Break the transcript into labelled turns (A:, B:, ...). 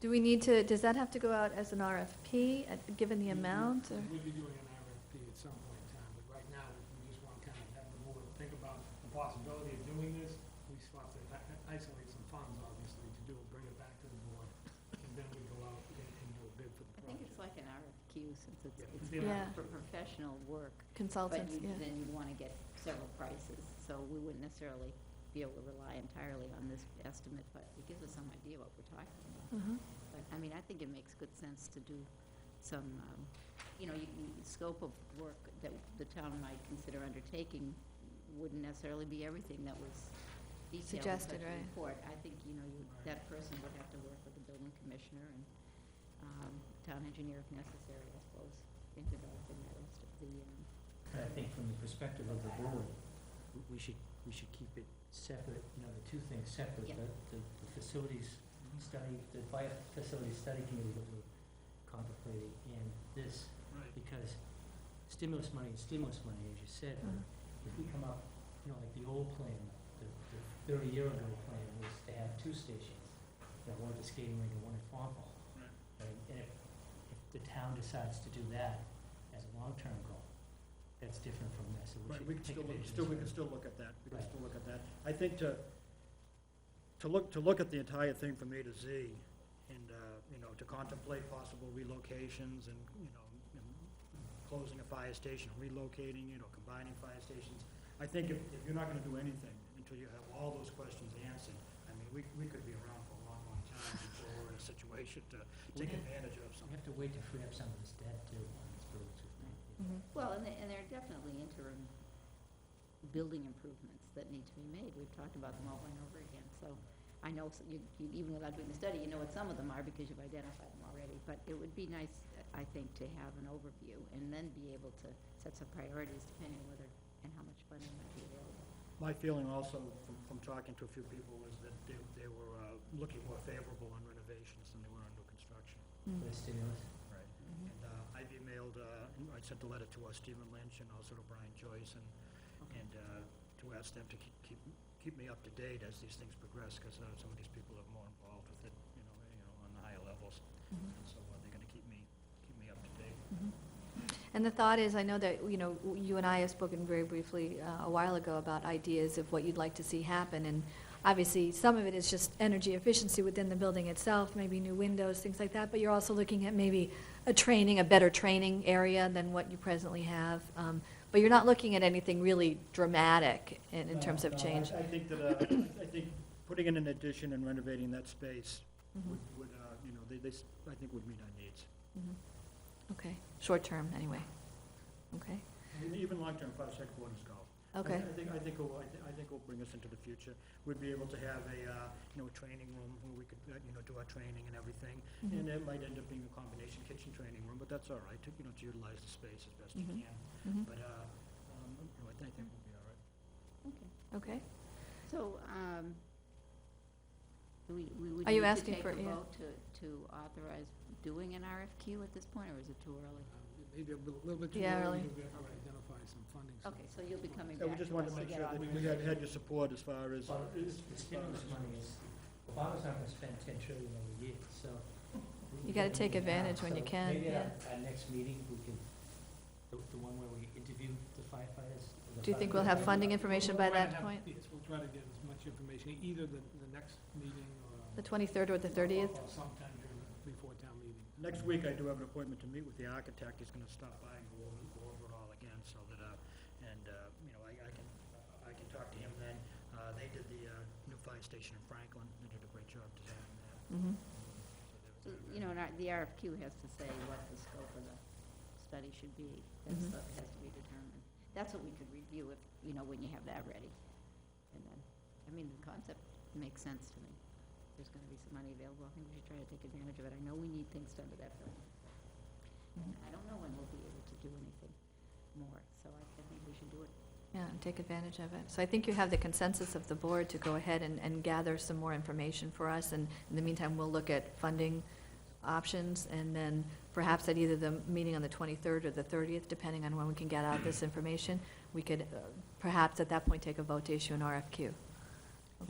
A: Do we need to, does that have to go out as an RFP, uh, given the
B: We- we-
C: Mm-hmm.
A: amount? or-
B: We'd be doing an RFP at some point in time, but right now, we just want to kind of have the board think about the possibility of doing this. We just want to i- isolate some funds, obviously, to do it, bring it back to the board, and then we go out and and do a bid for the
C: I think it's
B: project.
C: like an RFQ since it's,
B: Yeah.
C: it's
A: Yeah.
C: for professional work. But
A: Consultants,
C: you-
A: yeah.
C: then you want to get several prices, so we wouldn't necessarily be able to rely entirely on this estimate, but it gives us some idea what we're talking about.
A: Mhm.
C: But, I mean, I think it makes good sense to do some, um, you know, you, you- scope of work that the town might consider undertaking wouldn't necessarily be everything that was detailed in such
A: Suggested,
C: a
A: right.
C: report. I think, you know, you, that person would have to work with the building commissioner and, um, town engineer if necessary, I suppose, in developing that rest of the, um,
D: But I think from the perspective of the board, w- we should, we should keep it separate, you know, the two things separate.
C: Yeah.
D: The, the the facilities study, the fire facilities study committee that we're contemplating and this,
B: Right.
D: because stimulus money is stimulus money, as you said,
C: uh,
D: but if we come up, you know, like the old plan, the, the thirty-year ago plan was to have two stations, you know, one at the skating rink and one at Farm Hall.
B: Right.
D: And and if, if the town decides to do that as a long-term goal, that's different from this, so we
E: Right, we can
D: should take
E: still,
D: advantage of this.
E: still, we can still look at that, we can
D: Right.
E: still look at that. I think to, to look, to look at the entire thing from A to Z, and, uh, you know, to contemplate possible relocations and, you know, and closing a fire station, relocating, you know, combining fire stations. I think if, if you're not gonna do anything until you have all those questions answered, I mean, we, we could be around for a long, long time before we're in a situation to take advantage of
D: We
E: something.
D: have to wait to free up some of this debt too, on this village, I think.
A: Mhm.
C: Well, and there, and there are definitely interim building improvements that need to be made. We've talked about them over and over again, so I know, s- you, you- even without doing the study, you know what some of them are because you've identified them already. But it would be nice, I think, to have an overview and then be able to set some priorities depending whether and how much funding might be available.
E: My feeling also from, from talking to a few people was that they, they were uh, looking more favorable on renovations than they were on new construction.
A: Mm.
C: mm-hmm.
D: For the stimulus.
E: Right.
A: Mm-hmm.
E: And uh, I've emailed, uh, I sent a letter to uh, Stephen Lynch and also to Brian Joyce and, and uh, to ask them to keep- keep, keep me up to date as these things progress, because some of these people are more involved with it, you know, you know, on the higher levels.
A: Mhm.
E: And so uh, they're gonna keep me, keep me up to date.
A: Mhm. And the thought is, I know that, you know, w- you and I have spoken very briefly uh, a while ago about ideas of what you'd like to see happen, and obviously, some of it is just energy efficiency within the building itself, maybe new windows, things like that, but you're also looking at maybe a training, a better training area than what you presently have, um, but you're not looking at anything really dramatic in, in terms of
E: No, no, I-
A: change.
E: I think that, uh, I I think putting in an addition and renovating that space
A: Mhm.
E: would, would, uh, you know, they, they, s- I think would meet our needs.
A: Mhm. Okay, short term, anyway. Okay,
E: And Even long-term five second quarters golf. I-
A: okay,
E: I think, I think, it'll- I thi- I think it'll bring us into the future. We'd be able to have a, uh, you know, a training room where we could, uh, you know, do our training and everything.
A: Mhm.
E: And uh, it might end up being a combination kitchen training room, but that's all right, to, you know, to utilize the space as best you
A: Mhm.
E: can.
A: Mhm.
E: But, uh, um, you know, I think, I think we'll be all right.
C: Okay,
A: okay.
C: so, um, we, we would
A: Are you
C: need to
A: asking
C: take
A: for-
C: a
A: yeah.
C: vote to, to authorize doing an RFQ at this point, or is it too early?
B: Um, Maybe a little little bit too
A: Yeah,
B: early,
A: really.
B: because we have to identify some funding.
C: Okay, so you'll be coming
E: So we
C: back to us
E: just wanted to make
C: get
E: sure that
C: author-
E: we had, had your support as far as.
D: Well, the stimulus money is, Obama's not gonna spend ten trillion every year, so. we-
A: You
D: we
A: gotta
D: gotta
A: take
D: do it now.
A: advantage when you
D: So
A: can,
D: Maybe at
A: yeah.
D: our, our next meeting, we can, the, the one where we interview the firefighters. the
A: Do you think we'll have
D: firefighters.
A: funding information by
B: We'll try to
A: that
B: have-
A: point?
B: Yes, we'll try to get as much information, either the, the next meeting or.
A: The 23rd or the 30th?
B: or Sometime during, the- before town meeting.
E: Next week, I do have an appointment to meet with the architect, he's gonna stop by and go over, go over it all again, so that, uh, and, uh, you know, I, I can, I can talk to him then. Uh, they did the, uh, new fire station in Franklin, they did a great job designing that.
A: Mhm.
C: So, You know, and our- the RFQ has to say what the scope of the study should be. That's
A: Mhm.
C: what has to be determined. That's what we could review if, you know, when you have that ready. And then, I mean, the concept makes sense to me. There's gonna be some money available. I think we should try to take advantage of it. I know we need things done to that building.
A: Mm-hmm.
C: And I don't know when we'll be able to do anything more, so I I think we should do it.
A: Yeah, and take advantage of it. So I think you have the consensus of the board to go ahead and, and gather some more information for us, and in the meantime, we'll look at funding options, and then perhaps at either the meeting on the 23rd or the 30th, depending on when we can get out this information, we could uh, perhaps at that point take a vote to issue an RFQ.